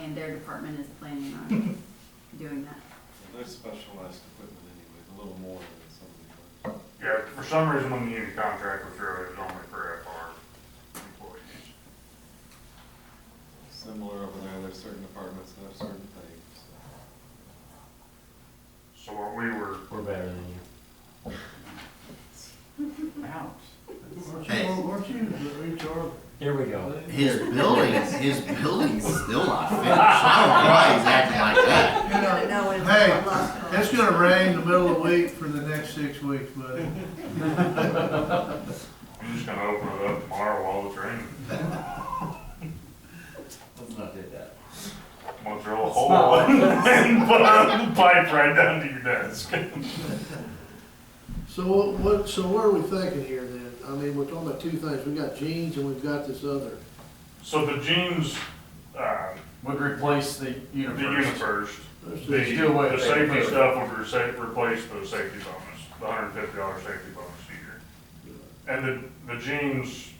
and their department is planning on doing that. They're specialized equipment anyway, a little more than some of the others. Yeah, for some reason, when you contract with Road, it was only for FR employees. Similar over there, there's certain departments that have certain things. So what we were, We're better than you. Hey. Weren't you the HR? Here we go. His buildings, his building's still not finished. I don't know why he's acting like that. You know, No, it's- Hey, it's gonna rain the middle of the week for the next six weeks, buddy. I'm just gonna open it up tomorrow while it's raining. Let's not do that. We'll drill a hole and put a pipe right down to your desk. So what- what, so what are we thinking here then? I mean, we're talking about two things. We've got jeans and we've got this other. So the jeans, uh, Would replace the the unit first, Let's the, see. Still wait. the safety stuff would resa- replace the safety bonus, the hundred and fifty dollar safety bonus a year. And the, the jeans,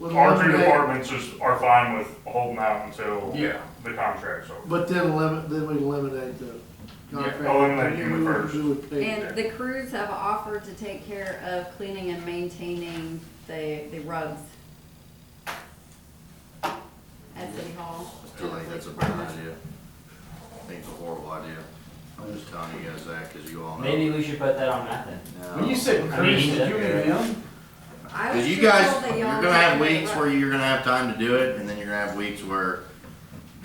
We'll our three eliminate- departments is, are fine with holding out until Yeah. the contract's over. But then eliminate, then we eliminate the contract. oh, eliminate human We would- first. we would pay And the crews have offered to take care of cleaning and maintaining the, the rugs at City Hall. I still think that's a bad idea. I think it's a horrible idea. I'm just telling you guys that, cause you all know. Maybe we should put that on that then. No. When you said I crews, mean, uh, did you mean them? I was Cause you just guys, told that you're y'all gonna have were- weeks where you're gonna have time to do it, and then you're gonna have weeks where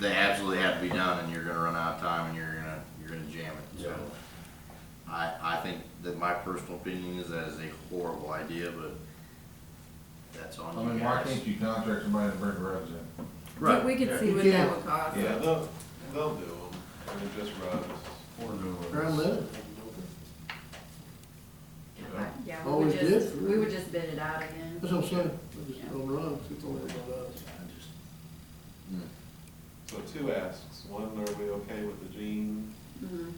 they absolutely have to be done, and you're gonna run out of time, and you're gonna, you're gonna jam it, so. I, I think that my personal opinion is that is a horrible idea, but that's on I you mean, why guys. can't you contract somebody to bring the roads in? Right. We could see what You that can. would cost. Yeah, they'll, they'll do them, I mean, just rugs or new ones. Ground level. Yeah, Oh, we would we did? just, we would just bid it out again. That's what I'm saying. We'll just overrun, it's all about us. So two asks, one, are we okay with the jean? Mm-hmm. Mhm.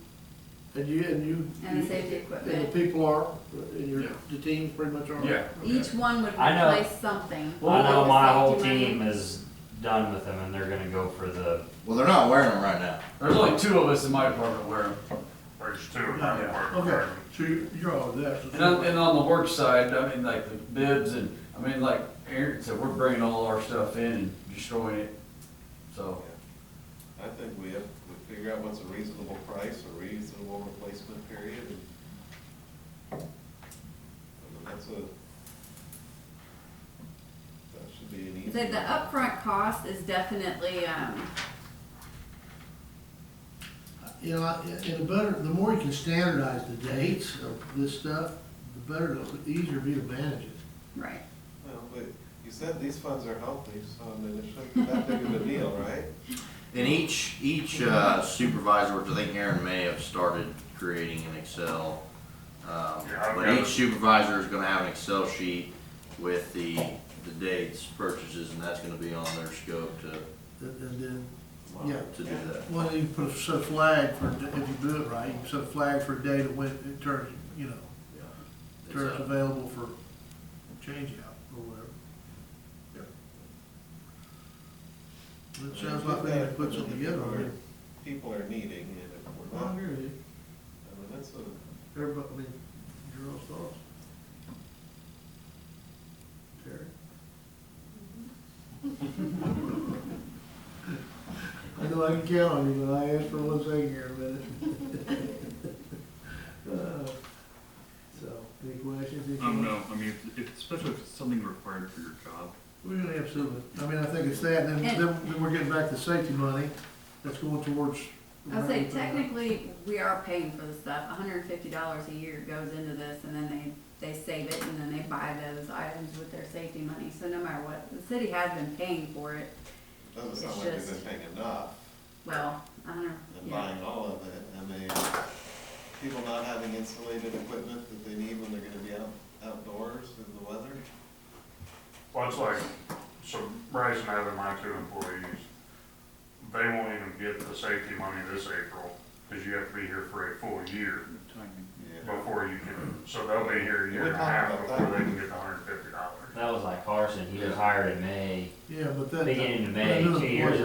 And you, and you. And the safety And the equipment. people are, and your, Yeah. the teams pretty much are. Yeah. Each one would I know. replace something. I know Like my the whole safety money. team is done with them and they're gonna go for the, Well, they're not wearing them right now. There's only two of us in my department wear them. There's two of Yeah, them. Okay, so you're, you're all there. so- And on, and on the work side, I mean, like the bibs and, I mean, like Aaron said, we're bringing all our stuff in and destroying it. Oh. So, I think we have, we figure out what's a reasonable price, a reasonable replacement period, and I mean, that's a, that should be an easy. The, the upfront cost is definitely, um, You know, I- and the better, the more you can standardize the dates of this stuff, the better, it'll- the easier it'll be to manage it. right. Well, but you said these funds are healthy, so I mean, it shouldn't be that big of a deal, right? And each, each uh, supervisor, which I think Aaron may have started creating an Excel. Um, Yeah, I've but got it. each supervisor is gonna have an Excel sheet with the, the dates, purchases, and that's gonna be on their scope to, uh, And and then, Yeah. to do that. well, you put a set flag for, if you do it right, you can set a flag for a day to when it turns, you know, It's turns a- available for change out or whatever. It sounds like we need to put something together on it. People are needing, and if we're I not, I Mm-hmm. mean, hear you. that's a, Everybody, I mean, your own thoughts. Terry? I know I can count on you, but I asked for one thing here in a minute. Uh, So, any questions? any Um, comments? no, I mean, if- if, especially if it's something required for your job, We're gonna have some, I mean, I think it's that, and then, And- then then we're getting back to safety money that's going towards. I'll say technically, we are paying for the stuff. hundred and fifty dollars a year goes into this and then they, they save it and then they buy those items with their safety money. So no matter what, the city has been paying for it. doesn't It's sound like they've just- been paying enough Well, I don't know. and yeah. buying all of it. I mean, people not having insulated equipment that they need when they're gonna be out, outdoors in the weather. Well, it's like, so Bryce and I have my two employees, they won't even get the safety money this April, because you have to be here for a full year timing. before you can, so they'll be here a year and a half before they can get the hundred and fifty dollars. that was like Carson, he was hired in May, Yeah, but that. beginning of May, another two years point.